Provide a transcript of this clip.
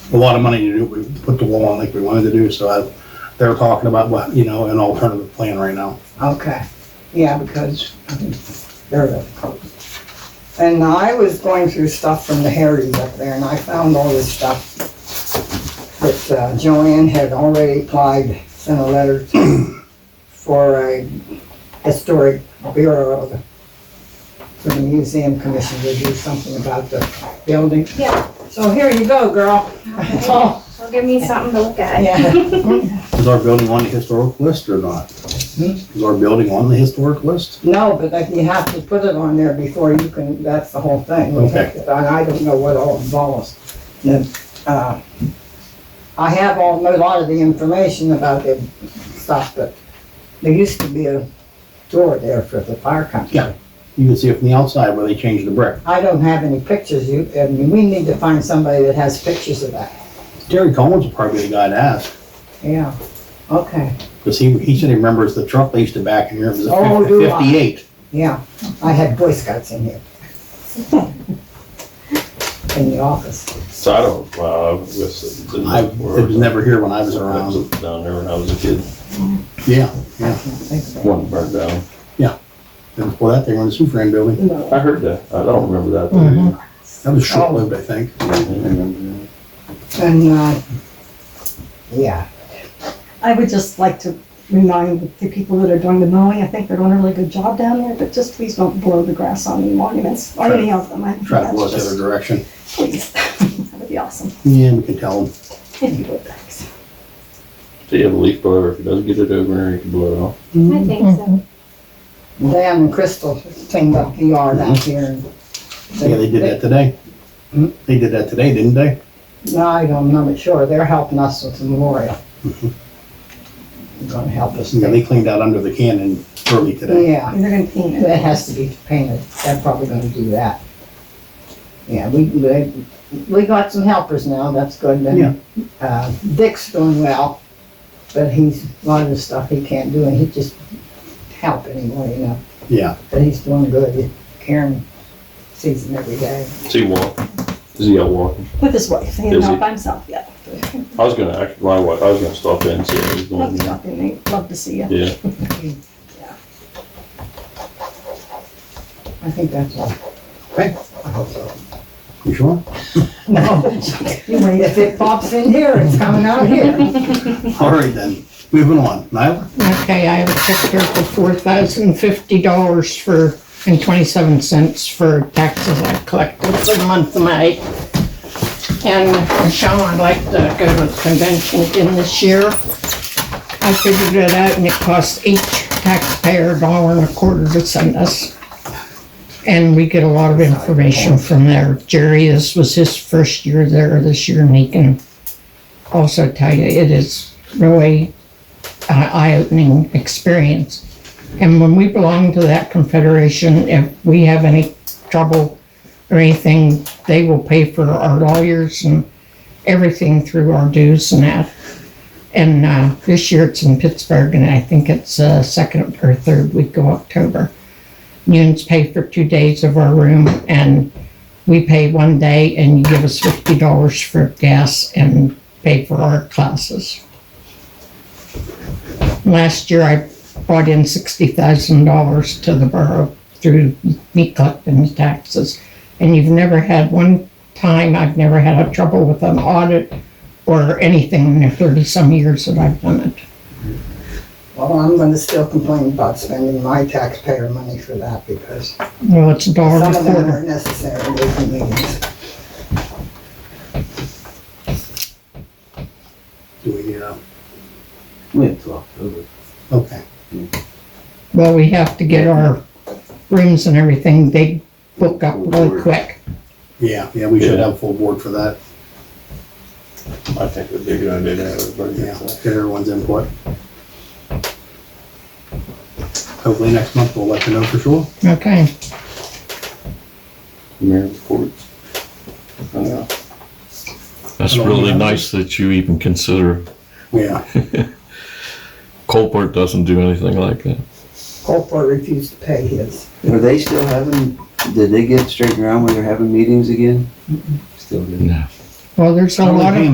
a lot of money to do, we put the wall on like we wanted to do, so I, they're talking about, what you know, an alternative plan right now. Okay, yeah, because they're the And I was going through stuff from the Harry's up there and I found all this stuff that uh, Joanne had already applied, sent a letter for a historic bureau of- for the museum commission to do something about the building. Yeah. So here you go, girl. Well, give me something to look at. Yeah. Is our building on the historic list or not? Hmm? Is our building on the historic list? No, but like you have to put it on there before you can, that's the whole thing. We have to- And I don't know what all involves. And, uh, I have all, a lot of the information about the stuff, but there used to be a door there for the fire company. Yeah. You can see it from the outside where they changed the brick. I don't have any pictures, you, I mean, we need to find somebody that has pictures of that. Jerry Collins would probably be the guy to ask, Yeah, okay, because he, he said he remembers the truck they used to back in here, it was Oh, a do I. fifty-eight. yeah. I had Boy Scouts in here. In the office. So I don't, well, I was, didn't I, it was never here when I was around. Down there when I was a kid, Yeah, I yeah. can't think of it. one burned down. And before that, they were in the Superman building. I heard that. I don't remember that. That Oh. was short-lived, I think. And, uh, yeah, I would just like to remind the people that are doing the mowing, I think they're doing a really good job down there, but just please don't blow the grass on any monuments or Try- any of them. I think Try to that's blow us the just- other direction. Please, that would be awesome, Yeah, we can tell them. if you would, thanks. So you have a leaf blower, if it doesn't get it over there, you can blow it off. I think so. Hmm? Dan and Crystal cleaned up the yard out here. and Mm-hmm. Yeah, they did that today. Hmm? They did that today, didn't they? No, I don't, I'm not sure, they're helping us with the memorial. They're Gonna help us. Mm-hmm. Yeah, they cleaned out under the cannon early today. Yeah, They're gonna paint it. that has to be painted, they're probably gonna do that. Yeah, we, we, we got some helpers now, that's good, Yeah. and, uh, Dick's doing well, but he's, a lot of the stuff he can't do, and he just help anymore, you know? Yeah, But he's doing good. Karen sees him every day. Is he walking? Is he out walking? With his wife, he Is not he? by himself yet. I was gonna, act- my wife, I was gonna stop in and see how he's Love doing. to talk to you, Nate. love to see you. Yeah, I think that's all. Okay. I hope so. you sure? If it pops in here, it's coming out here. All right then, moving on. Nyla? Okay, I have a check here for four thousand fifty dollars for, and twenty-seven cents for taxes I collected for the month of May. And Michelle, I'd like to go to the convention again this year. I figured it out and it costs each taxpayer a dollar and a quarter to send us. And we get a lot of information from there. Jerry, this was his first year there this year and he can also tell you, it is really uh, eye-opening experience. And when we belong to that confederation, if we have any trouble or anything, they will pay for our lawyers and everything through our dues and that. And uh, this year it's in Pittsburgh, and I think it's uh, second or third week of October. Unions pay for two days of our room, and we pay one day, and you give us fifty dollars for gas and pay for our classes. Last year, I brought in sixty thousand dollars to the borough through me collecting the taxes. And you've never had one time, I've never had a trouble with an audit or anything in the thirty-some years that I've done it. Well, I'm gonna still complain about spending my taxpayer money for that because Well, it's a dollar some a of them quarter. are necessary with the meetings. Do we uh, need a, We have to October. okay. Well, we have to get our rooms and everything, they book up really quick. Yeah, yeah, we should Yeah. have a full board for that. I think it'd be a good idea to have everybody. Yeah, get get that. everyone's input. Hopefully next month we'll let you know for sure. Okay, Mayor reports. I know. That's Hello, really Mr. nice that you even consider. Yeah, Colport doesn't do anything like that. Colport refused to pay his. Are they still having, did they get straightened around when they're having meetings again? Still didn't. No. well, there's a lot of